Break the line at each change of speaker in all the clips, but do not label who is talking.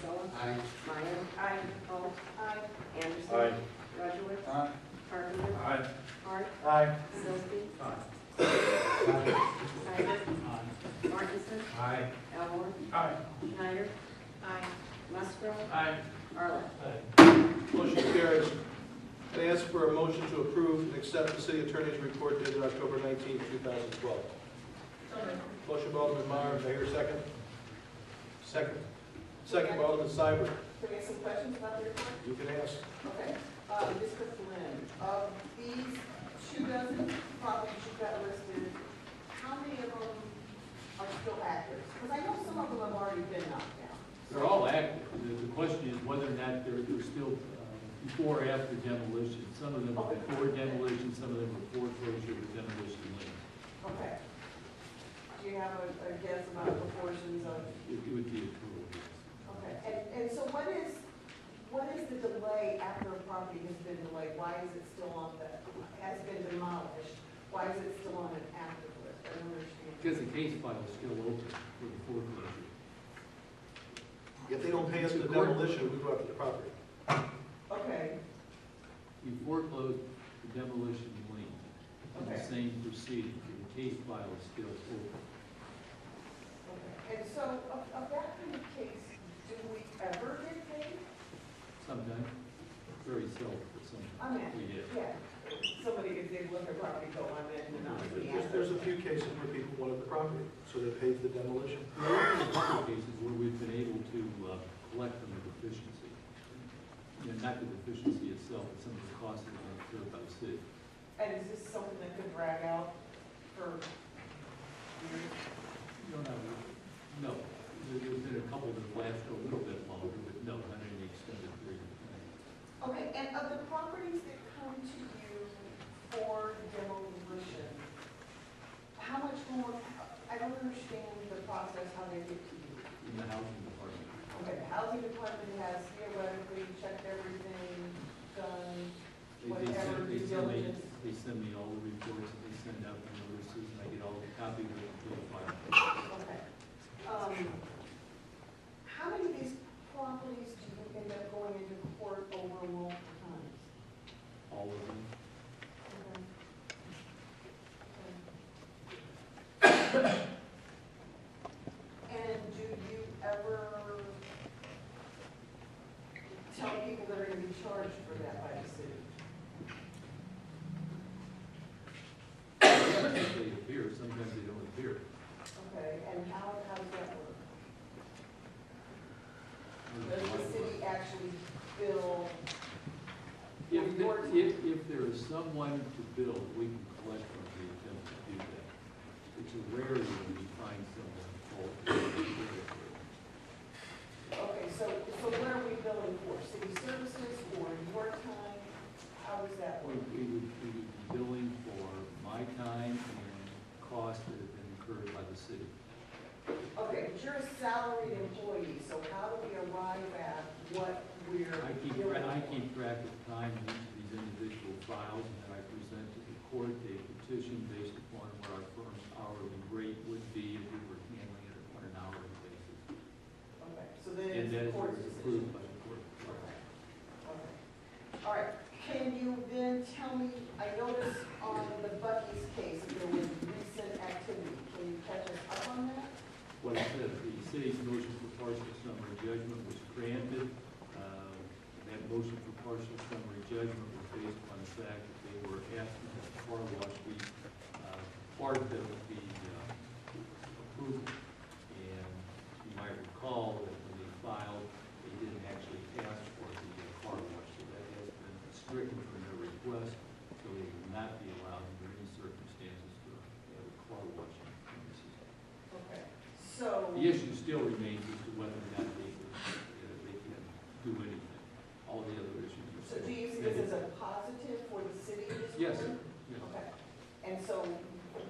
Sella.
Aye.
Meyer. Aye. Holt. Aye. Anderson.
Aye.
Rudowitz.
Aye.
Carpenter.
Aye.
Hart.
Aye.
Silsby.
Aye.
Snyder. Martinson.
Aye.
Elmore.
Aye.
Schneider. Aye. Musgrove.
Aye.
Arlen.
Motion carries. I ask for a motion to approve and accept the city attorney's report dated October 19, 2012. Motion by Alderman Meyer, may I hear a second? Second. Second by Alderman Seibert.
Can we have some questions about the report?
You can ask.
Okay, uh, Mr. Flynn, of these two dozen properties you got listed, how many of them are still active? Because I know some of them have already been knocked down.
They're all active. The- The question is whether or not they're, they're still uh, before or after demolition. Some of them are before demolition, some of them are before closure with demolition lien.
Okay. Do you have a, a guess about the proportions of,
It it would be approved.
okay, and, and so what is, what is the delay after a property has been delayed? Why is it still on the, has been demolished? Why is it still on an active list? I don't understand.
Because the case file is still open for the foreclosure.
If they don't pay us the demolition, we go after the property.
Okay,
You foreclose the demolition lien in the
Okay.
same proceeding. The case file is still open.
Okay, And so of, of that kind of case, do we ever get paid?
Sometimes, very seldom, but sometimes.
I mean,
We did.
yeah, somebody could say, look, their property go on it and not be
There's, there's a few cases where people wanted the property, so they paid the demolition.
There are a couple of cases where we've been able to uh, collect from the deficiency. You know, not the deficiency itself, but some of the costs that are incurred by the city.
And is this something that could drag out for years?
No, no, no. There- There's been a couple that last a little bit longer, but no, not any extended period of time.
Okay, and of the properties that come to you for demolition, how much more, I don't understand the process, how they get to you.
In the housing department,
Okay, the housing department has theoretically checked everything, done,
they, they send,
Whatever
they
due
send me,
diligence.
they send me all the reports, that they send out the notices, and I get all the copy of it to the file.
Okay. Um, How many of these properties do you end up going into court over multiple times?
All of them,
Okay. Okay. And do you ever tell people that are gonna be charged for that by the city?
sometimes they appear, sometimes they don't appear.
Okay, and how, how does that work?
There's
Does
a lot
the
of-
city actually bill?
If,
for
there-
your-
if, if there is someone to build, we can collect from the attempt to do that. It's a rarity when you find someone fault.
Okay, so, so what are we billing for? City services or your time? How does that
We
work?
we would, we would be billing for my time and costs that have been incurred by the city.
Okay, but you're a salaried employee, so how do we arrive at what we're
I keep, tra-
billing?
I keep track of time in each of these individual files, and then I present to the court a petition based upon what our firm's hourly rate would be if we were handling it on an hourly basis.
Okay, so then
And that
it's the
is
court's decision.
approved by the court.
Okay. Okay. All right, can you then tell me, I noticed on the Bucky's case, there was recent activity. Can you catch us up on that?
what I said, the city's motion for partial summary judgment was granted. Uh, That motion for partial summary judgment was based upon the fact that they were asking that the car wash be uh, part of the uh, approval. And you might recall that when they filed, they didn't actually ask for the uh, car wash, so that has been stricken from their request, so they will not be allowed under any circumstances to have a car wash in this city.
Okay, so.
The issue still remains as to whether or not they, uh, they can do anything. All the other issues are
So
still.
do you see this as a positive for the city this
Yes,
quarter?
yes.
Okay. And so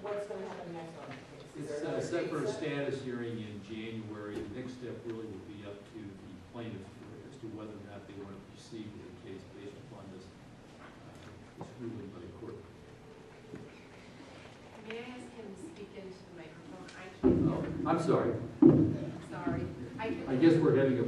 what's going to happen next on the case? Is
It's
there
uh,
another
set for a
date set?
status hearing in January. The next step really will be up to the plaintiff as to whether or not they want to proceed with the case based upon this, uh, this ruling by the court.
May I ask him to speak into the microphone? I can't,
Oh, I'm sorry.
sorry. I can
I guess we're having a